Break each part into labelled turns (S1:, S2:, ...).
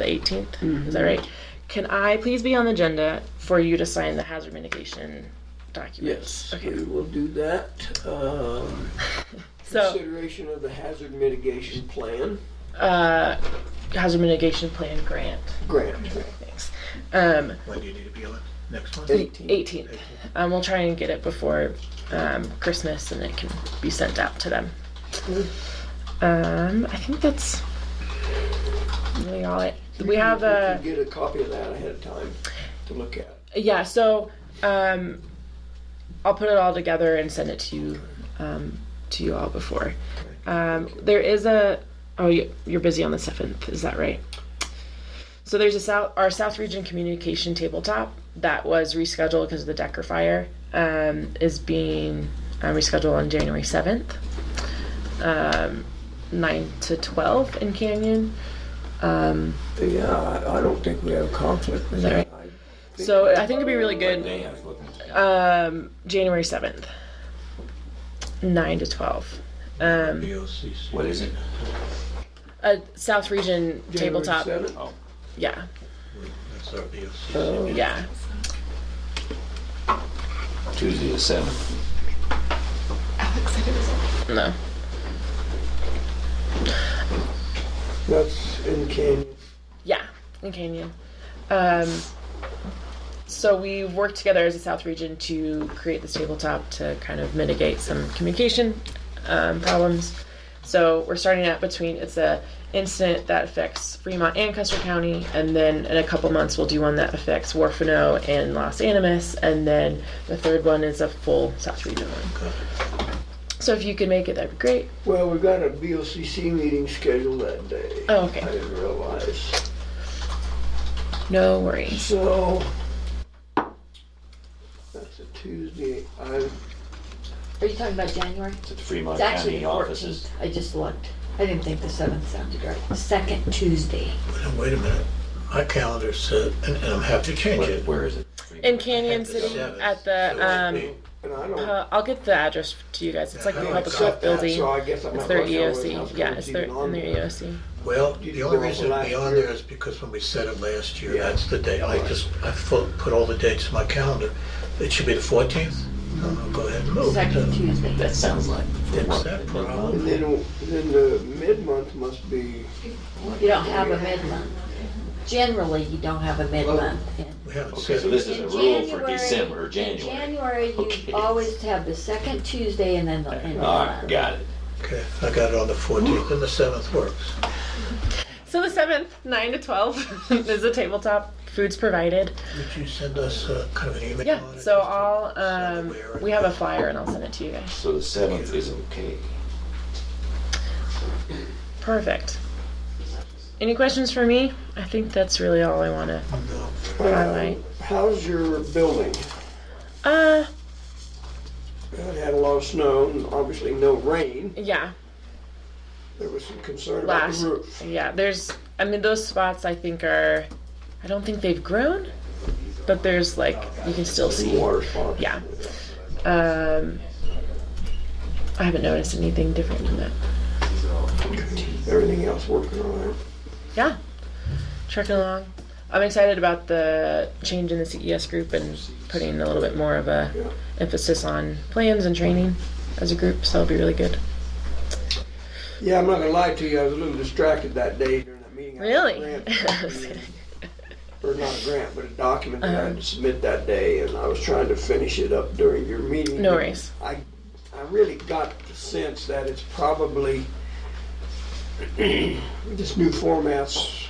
S1: the 18th. Is that right? Can I please be on the agenda for you to sign the hazard mitigation documents?
S2: Yes,
S1: Okay.
S2: we will do that. Um,
S1: So,
S2: Consideration of the hazard mitigation plan
S1: uh, hazard mitigation plan grant.
S2: grant.
S1: Thanks. Um,
S3: When do you need to be on? Next one?
S2: Eight.
S1: 18th. Um, we'll try and get it before um, Christmas and it can be sent out to them. Um, I think that's really all it. We have a.
S2: Get a copy of that ahead of time to look at.
S1: yeah so um i'll put it all together and send it to you um to you all before um there is a oh you- you're busy on the 7th is that right so there's a south our south region communication tabletop that was rescheduled because of the decker fire um is being um, rescheduled on january 7th um 9 to 12 in canyon um
S2: Yeah, I- I don't think we have a conflict with
S1: that
S2: that.
S1: so i think it'd be really good
S2: May I was looking at-
S1: Um, January seventh, nine to twelve. Um,
S3: BOCC.
S2: What is it?
S1: a South Region
S2: January
S1: tabletop.
S2: 7th?
S1: Yeah,
S3: That's our BOCC.
S2: Oh.
S1: yeah.
S4: Tuesday the seventh.
S1: No,
S2: That's in Canyon.
S1: yeah, in Canyon. Um, so we worked together as a South Region to create this tabletop to kind of mitigate some communication um, problems. So we're starting out between it's a incident that affects Fremont and Custer County, and then in a couple months we'll do one that affects Warfano and Los Animas, and then the third one is a full South Region one. So if you could make it, that'd be great.
S2: Well, we've got a BOCC meeting scheduled that day.
S1: Oh, okay.
S2: I didn't realize.
S1: No worries.
S2: So, that's a Tuesday. I,
S5: Are you talking about January?
S4: It's at the Fremont
S5: It's actually
S4: County
S5: the
S4: offices.
S5: fourteenth. I just looked. I didn't think the seventh sounded right. The Second Tuesday.
S3: Now, Wait a minute, my calendar said, and and I'm happy to change
S4: Where-
S3: it.
S4: where is it?
S1: In Canyon City,
S3: Seven.
S1: at
S3: So it'd
S1: the
S3: be-
S2: and I don't.
S1: um, uh, I'll get the address to you guys. It's like the
S2: I don't
S1: public
S2: accept
S1: health
S2: that,
S1: building.
S2: So I guess I'm
S1: It's
S2: not
S1: their
S2: gonna know what else
S1: EOC. Yeah, it's
S2: is
S1: their
S2: even on
S1: in their E
S2: there.
S1: EOC.
S3: Well, the only
S2: Well,
S3: reason it'd be
S2: last
S3: on
S2: year-
S3: there is because when we set it last year,
S2: Yeah.
S3: that's the day. I just, I fu- put all the dates in my calendar. It should be the fourteenth. Go ahead and move it.
S5: Second
S3: to-
S5: Tuesday.
S4: That sounds like.
S3: Fix that problem.
S2: And then, then the mid-month must be,
S5: You don't have a mid-month. Generally, you don't have a mid-month. in-
S3: We haven't
S4: Okay,
S3: set
S4: so
S3: it.
S4: this is
S5: in
S4: a rule for
S5: January-
S4: December, or
S5: In
S4: January.
S5: January,
S4: Okay.
S5: you always have the second Tuesday and then the end of the
S4: All right,
S5: month.
S4: got it.
S3: Okay, I got it on the fourteenth and the seventh works.
S1: So the seventh, nine to twelve, is a tabletop. Food's provided.
S3: Would you send us uh, kind of an email on
S1: Yeah.
S3: it?
S1: So
S3: just to
S1: I'll
S3: so that
S1: um,
S3: we're-
S1: we have a flyer and I'll send it to you guys.
S4: So the seventh is okay.
S1: Perfect. Any questions for me? I think that's really all I want to
S3: No.
S1: highlight.
S2: how's your building?
S1: Uh,
S2: It had a lot of snow and obviously no rain.
S1: yeah,
S2: There was some concern about
S1: Last-
S2: the roof.
S1: yeah. There's, I mean, those spots I think are, I don't think they've grown, but there's like you can still see.
S2: Water spots.
S1: Yeah. Um, I haven't noticed anything different than that.
S2: Everything else working all right.
S1: yeah, trucking along. I'm excited about the change in the CES group and putting a little bit more of a emphasis on plans and training as a group. So it'll be really good.
S2: Yeah, I'm not gonna lie to you, I was a little distracted that day during that meeting. I had a
S1: Really?
S2: grant document, Or not a grant, but a document that I
S1: Uh-huh.
S2: had to submit that day, and I was trying to finish it up during your meeting.
S1: no worries.
S2: I, I really got the sense that it's probably, this new format's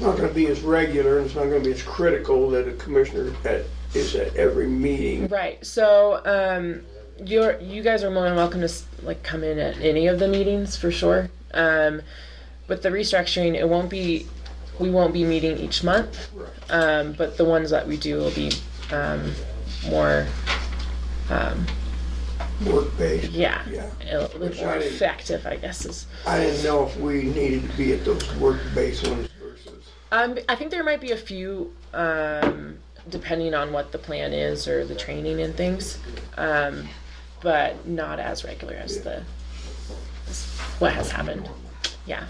S2: not gonna be as regular, and it's not gonna be as critical that a commissioner at, is at every meeting.
S1: Right. So um, you're you guys are more than welcome to s- like come in at any of the meetings for sure. Um, with the restructuring, it won't be we won't be meeting each month, um, but the ones that we do will be um, more um,
S2: Work-based,
S1: yeah.
S2: yeah.
S1: a little bit more
S2: Exciting.
S1: effective, I guess. Is
S2: I didn't know if we needed to be at those work-based ones versus.
S1: um, I think there might be a few, um, depending on what the plan is or the training and things, um, but not as regular as the as what has happened. Yeah,